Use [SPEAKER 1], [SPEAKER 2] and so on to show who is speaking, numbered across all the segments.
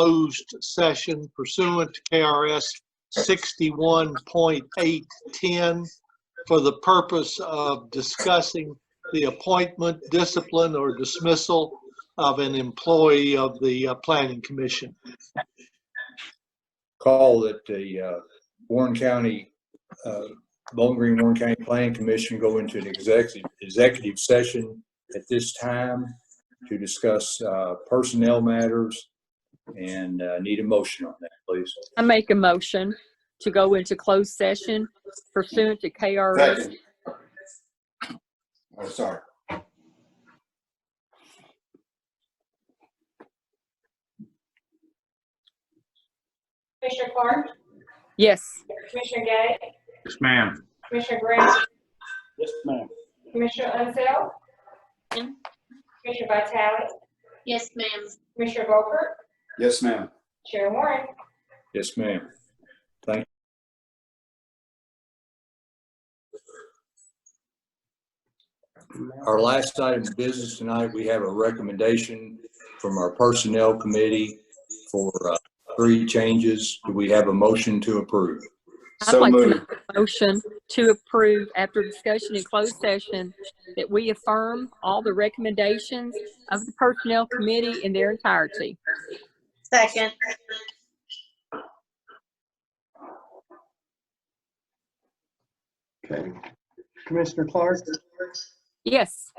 [SPEAKER 1] closed session pursuant to KRS 61.810 for the purpose of discussing the appointment, discipline, or dismissal of an employee of the uh, Planning Commission.
[SPEAKER 2] call that the uh, Warren County, uh, Bowling Green Warren County Planning Commission go into an executive, executive session at this time to discuss uh, personnel matters and uh, need a motion on that, please.
[SPEAKER 3] I make a motion to go into closed session pursuant to KRS.
[SPEAKER 4] Second. Oh, sorry.
[SPEAKER 5] Commissioner Clark,
[SPEAKER 3] Yes,
[SPEAKER 5] Commissioner Gay,
[SPEAKER 6] Yes, ma'am.
[SPEAKER 5] Commissioner Grant,
[SPEAKER 6] Yes, ma'am.
[SPEAKER 5] Commissioner Unseld, Commissioner Vitale,
[SPEAKER 7] Yes, ma'am.
[SPEAKER 5] Commissioner Volker,
[SPEAKER 4] Yes, ma'am.
[SPEAKER 5] Chair Warren.
[SPEAKER 2] Yes, ma'am. Our last item of business tonight, we have a recommendation from our Personnel Committee for uh, three changes. Do we have a motion to approve?
[SPEAKER 3] I'd
[SPEAKER 4] So
[SPEAKER 3] like to
[SPEAKER 4] moved.
[SPEAKER 3] make a motion to approve after discussion in closed session that we affirm all the recommendations of the Personnel Committee in their entirety.
[SPEAKER 7] Second.
[SPEAKER 4] Okay.
[SPEAKER 8] Commissioner Clark,
[SPEAKER 3] Yes,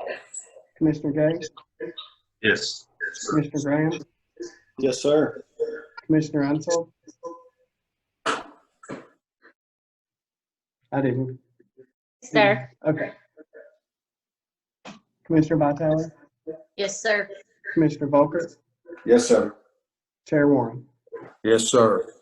[SPEAKER 8] Commissioner Gay,
[SPEAKER 6] Yes.
[SPEAKER 8] Commissioner Graham,
[SPEAKER 6] Yes, sir.
[SPEAKER 8] Commissioner Ansel. I didn't.
[SPEAKER 7] Sir.
[SPEAKER 8] Okay. Commissioner Vitale,
[SPEAKER 7] Yes, sir.
[SPEAKER 8] Commissioner Volker,
[SPEAKER 4] Yes, sir.
[SPEAKER 8] Chair Warren.
[SPEAKER 2] Yes, sir.